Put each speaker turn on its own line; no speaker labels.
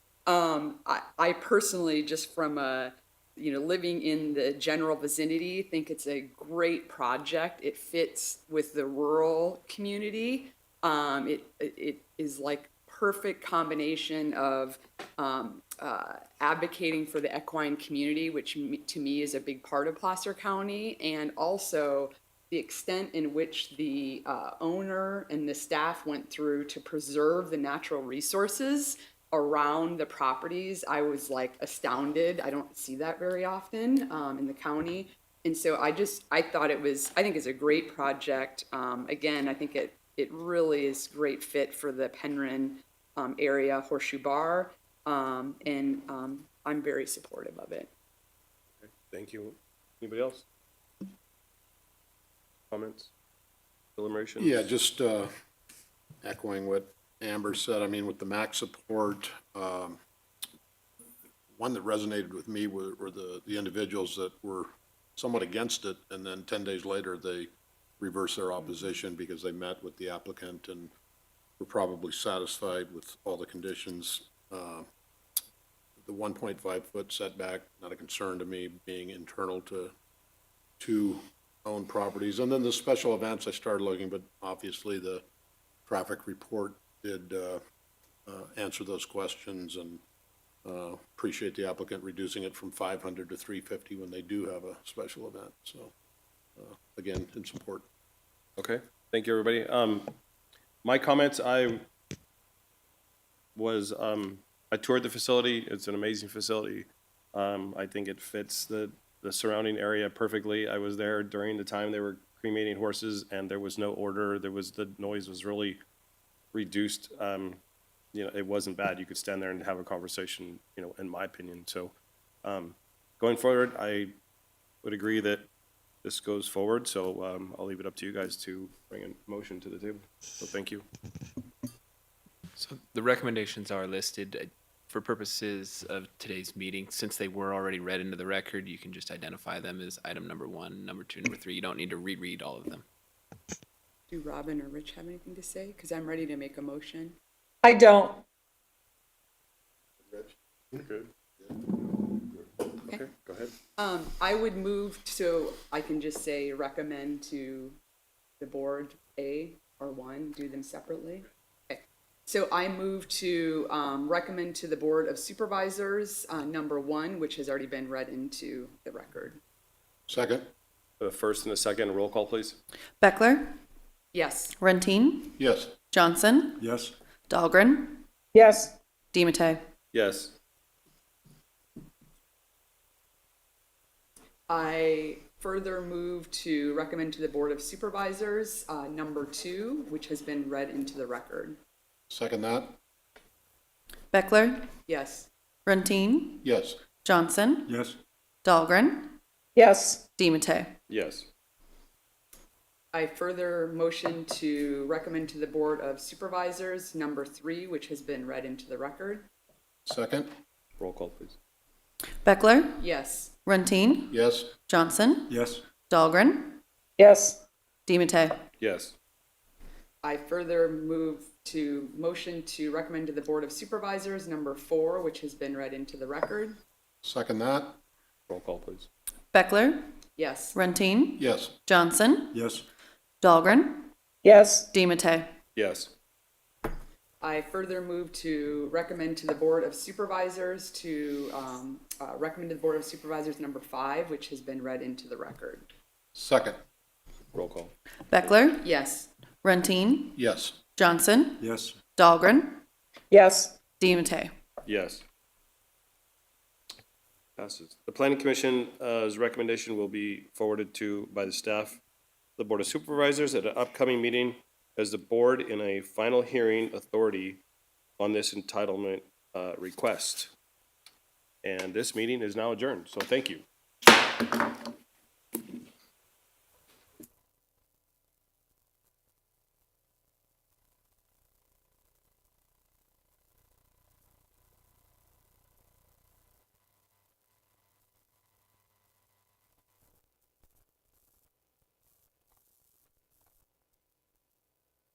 Um, I, I personally, just from a, you know, living in the general vicinity, think it's a great project. It fits with the rural community. Um, it, it is like perfect combination of um, uh, advocating for the equine community, which me- to me is a big part of Placer County, and also the extent in which the uh, owner and the staff went through to preserve the natural resources around the properties, I was like astounded. I don't see that very often um, in the county. And so I just, I thought it was, I think it's a great project. Um, again, I think it, it really is great fit for the Penryn um, area horseshoe bar. Um, and um, I'm very supportive of it.
Thank you. Anybody else? Comments? Deliberations?
Yeah, just uh, echoing what Amber said, I mean, with the MAC support, um, one that resonated with me were were the, the individuals that were somewhat against it, and then 10 days later, they reversed their opposition because they met with the applicant and were probably satisfied with all the conditions. Uh, The 1.5-foot setback, not a concern to me, being internal to two owned properties. And then the special events, I started looking, but obviously the traffic report did uh, uh, answer those questions and uh, appreciate the applicant reducing it from 500 to 350 when they do have a special event. So uh, again, in support.
Okay, thank you, everybody. Um, my comments, I was, um, I toured the facility. It's an amazing facility. Um, I think it fits the, the surrounding area perfectly. I was there during the time they were cremating horses and there was no order. There was, the noise was really reduced. Um, you know, it wasn't bad. You could stand there and have a conversation, you know, in my opinion. So, um, going forward, I would agree that this goes forward, so um, I'll leave it up to you guys to bring a motion to the table. So thank you.
So the recommendations are listed uh, for purposes of today's meeting. Since they were already read into the record, you can just identify them as item number one, number two, number three. You don't need to reread all of them.
Do Robin or Rich have anything to say? Because I'm ready to make a motion.
I don't.
Good. Okay, go ahead.
Um, I would move, so I can just say recommend to the board A or one, do them separately. Okay. So I move to, um, recommend to the Board of Supervisors, uh, number one, which has already been read into the record.
Second?
The first and the second, roll call, please.
Beckler,
Yes,
Runtine,
Yes.
Johnson. Yes. Dahlgren,
Yes,
Dematteis.
Yes.
I further move to recommend to the Board of Supervisors, uh, number two, which has been read into the record.
Second that?
Beckler,
Yes,
Runtine,
Yes.
Johnson. Yes. Dahlgren,
yes,
Dematteis.
Yes.
I further motion to recommend to the Board of Supervisors, number three, which has been read into the record.
Second?
Roll call, please.
Beckler,
Yes,
Runtine,
Yes.
Johnson. Yes. Dahlgren,
yes,
Dematteis.
Yes.
I further move to motion to recommend to the Board of Supervisors, number four, which has been read into the record.
Second that?
Roll call, please.
Beckler,
Yes,
Runtine,
Yes.
Johnson. Yes. Dahlgren,
yes,
Dematteis.
Yes.
I further move to recommend to the Board of Supervisors to, um, uh, recommend to the Board of Supervisors, number five, which has been read into the record.
Second?
Roll call.
Beckler,
Yes,
Runtine,
Yes.
Johnson. Yes. Dahlgren,
yes,
Dematteis.
Yes. Passes. The planning commission's recommendation will be forwarded to, by the staff, the board of supervisors at an upcoming meeting as the board in a final hearing authority on this entitlement uh, request. And this meeting is now adjourned, so thank you.